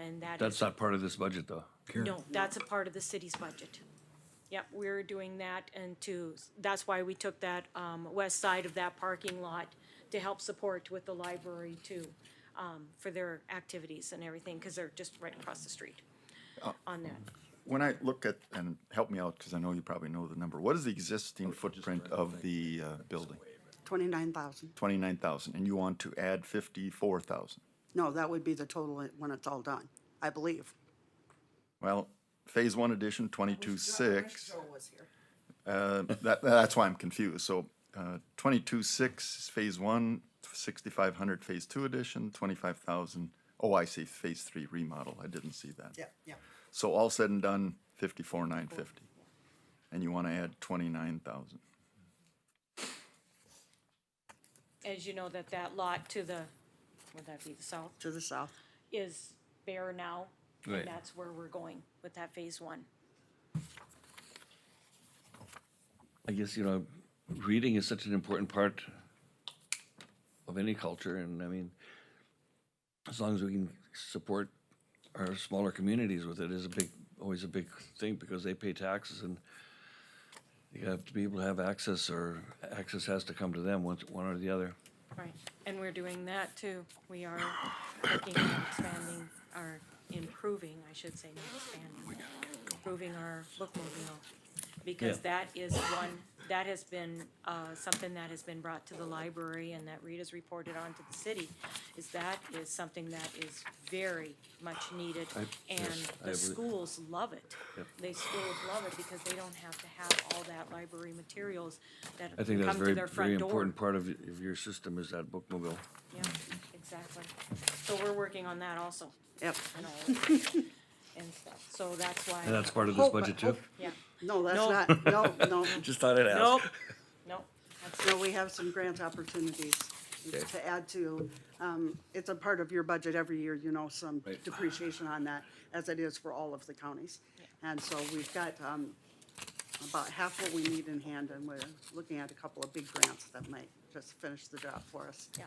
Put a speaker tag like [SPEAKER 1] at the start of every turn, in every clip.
[SPEAKER 1] and that is,
[SPEAKER 2] That's not part of this budget, though.
[SPEAKER 1] no, that's a part of the city's budget. Yep, we're doing that and to, that's why we took that, um, west side of that parking lot to help support with the library too, um, for their activities and everything, cause they're just right across the street
[SPEAKER 2] Oh.
[SPEAKER 1] on that.
[SPEAKER 3] When I look at, and help me out, because I know you probably know the number, what is the
[SPEAKER 4] Oh,
[SPEAKER 3] existing footprint of the uh, building?
[SPEAKER 5] 29,000.
[SPEAKER 3] Twenty-nine thousand, and you want to add fifty-four thousand.
[SPEAKER 5] No, that would be the total it- when it's all done, I believe.
[SPEAKER 3] Well, phase one addition, twenty-two six,
[SPEAKER 4] Joe was here.
[SPEAKER 3] uh, that, that's why I'm confused, so, uh, twenty-two six is phase one, sixty-five hundred, phase two addition, twenty-five thousand. Oh, I see, phase three remodel, I didn't see that.
[SPEAKER 4] Yeah, yeah.
[SPEAKER 3] So all said and done, fifty-four nine fifty, and you want to add twenty-nine thousand.
[SPEAKER 1] As you know, that that lot to the, would that be the south,
[SPEAKER 5] To the south.
[SPEAKER 1] is bare now.
[SPEAKER 2] Right.
[SPEAKER 1] And that's where we're going with that phase one.
[SPEAKER 2] I guess, you know, reading is such an important part of any culture, and I mean, as long as we can support our smaller communities with it is a big, always a big thing, because they pay taxes and you have to be able to have access, or access has to come to them, one, one or the other.
[SPEAKER 1] Right, and we're doing that too. We are looking at expanding our, improving, I should say, not expanding, improving our bookmobile. Because
[SPEAKER 2] Yeah.
[SPEAKER 1] that is one, that has been, uh, something that has been brought to the library and that Rita's reported on to the city, is that is something that is very much needed.
[SPEAKER 2] yes,
[SPEAKER 1] And
[SPEAKER 2] I
[SPEAKER 1] the
[SPEAKER 2] believe-
[SPEAKER 1] schools love it. They schools love it because they don't have to have all that library materials that
[SPEAKER 2] I
[SPEAKER 1] come
[SPEAKER 2] think that's
[SPEAKER 1] to
[SPEAKER 2] very,
[SPEAKER 1] their
[SPEAKER 2] very
[SPEAKER 1] front door.
[SPEAKER 2] important part of, y- of your system is that bookmobile.
[SPEAKER 1] Yeah, exactly. So we're working on that also,
[SPEAKER 5] Yep.
[SPEAKER 1] and all of that and stuff, so that's why.
[SPEAKER 2] And that's part of this
[SPEAKER 5] Hope-
[SPEAKER 2] budget too?
[SPEAKER 5] hope-
[SPEAKER 1] Yeah,
[SPEAKER 5] oh, No, that's
[SPEAKER 1] No.
[SPEAKER 5] not, no, no.
[SPEAKER 2] Just thought I'd ask.
[SPEAKER 5] Nope.
[SPEAKER 1] no, that's,
[SPEAKER 5] No, we have some grant opportunities to add to. Um, It's a part of your budget every year, you know, some
[SPEAKER 2] Right.
[SPEAKER 5] depreciation on that, as it is for all of the counties. And so we've got um, about half what we need in hand, and we're looking at a couple of big grants that might just finish the job for us.
[SPEAKER 1] yeah,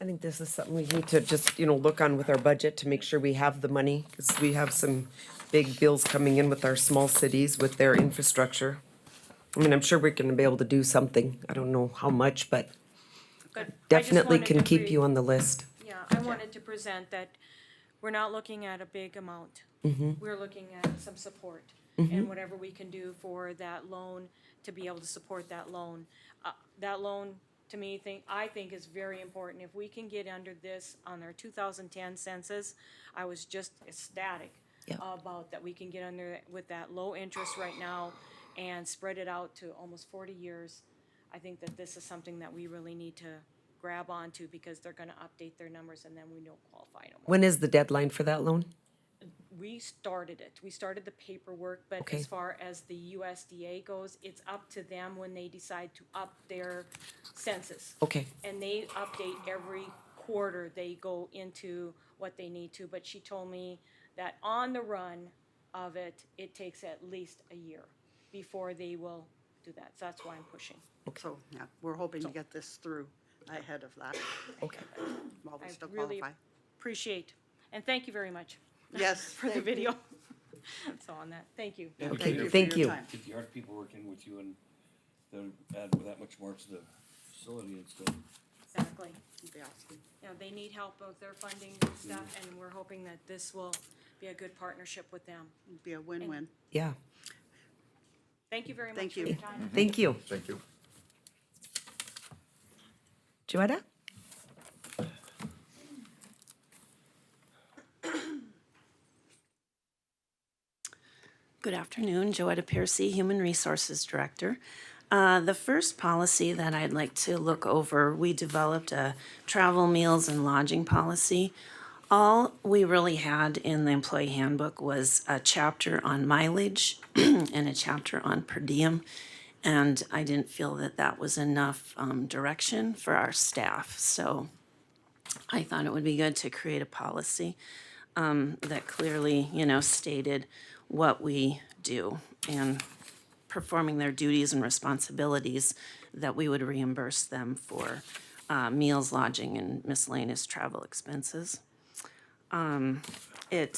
[SPEAKER 6] I think this is something we need to just, you know, look on with our budget to make sure we have the money, because we have some big bills coming in with our small cities with their infrastructure. I mean, I'm sure we're gonna be able to do something. I don't know how much, but
[SPEAKER 1] good. I just
[SPEAKER 6] definitely
[SPEAKER 1] wanted
[SPEAKER 6] can
[SPEAKER 1] to
[SPEAKER 6] keep
[SPEAKER 1] re-
[SPEAKER 6] you on the list.
[SPEAKER 1] Yeah, I wanted to present that we're not looking at a big amount. We're looking at some support and whatever we can do for that loan, to be able to support that loan. Uh, That loan, to me, think, I think is very important. If we can get under this on our two thousand ten census, I was just ecstatic
[SPEAKER 6] Yeah.
[SPEAKER 1] about that we can get under it with that low interest right now and spread it out to almost forty years. I think that this is something that we really need to grab onto because they're gonna update their numbers and then we don't qualify no more.
[SPEAKER 6] When is the deadline for that loan?
[SPEAKER 1] We started it, we started the paperwork, but
[SPEAKER 6] Okay.
[SPEAKER 1] as far as the USDA goes, it's up to them when they decide to up their census.
[SPEAKER 6] Okay,
[SPEAKER 1] And they update every quarter, they go into what they need to, but she told me that on the run of it, it takes at least a year before they will do that, so that's why I'm pushing.
[SPEAKER 5] So, yeah, we're hoping to get this through ahead of that,
[SPEAKER 6] okay.
[SPEAKER 5] while
[SPEAKER 1] I
[SPEAKER 5] we still
[SPEAKER 1] really
[SPEAKER 5] qualify.
[SPEAKER 1] appreciate, and thank you very much.
[SPEAKER 5] Yes.
[SPEAKER 1] for the video. So on that, thank you.
[SPEAKER 7] Yeah,
[SPEAKER 6] Okay,
[SPEAKER 7] get your-
[SPEAKER 6] thank
[SPEAKER 5] your
[SPEAKER 6] you.
[SPEAKER 5] time.
[SPEAKER 7] Get the art people working with you and then add that much more to the facility and stuff.
[SPEAKER 1] Exactly.
[SPEAKER 5] It'd be awesome.
[SPEAKER 1] Yeah, they need help with their funding and stuff, and we're hoping that this will be a good partnership with them.
[SPEAKER 5] It'd Be a win-win.
[SPEAKER 6] Yeah,
[SPEAKER 1] Thank you very much
[SPEAKER 5] Thank
[SPEAKER 1] for your
[SPEAKER 5] you.
[SPEAKER 1] time.
[SPEAKER 6] thank you.
[SPEAKER 3] Thank you.
[SPEAKER 6] Joanna?
[SPEAKER 8] Good afternoon, Joetta Piercy, Human Resources Director. Uh, The first policy that I'd like to look over, we developed a travel, meals, and lodging policy. All we really had in the employee handbook was a chapter on mileage and a chapter on per diem. And I didn't feel that that was enough um, direction for our staff. So I thought it would be good to create a policy that clearly, you know, stated what we do and performing their duties and responsibilities, that we would reimburse them for uh, meals, lodging, and miscellaneous travel expenses. Um, It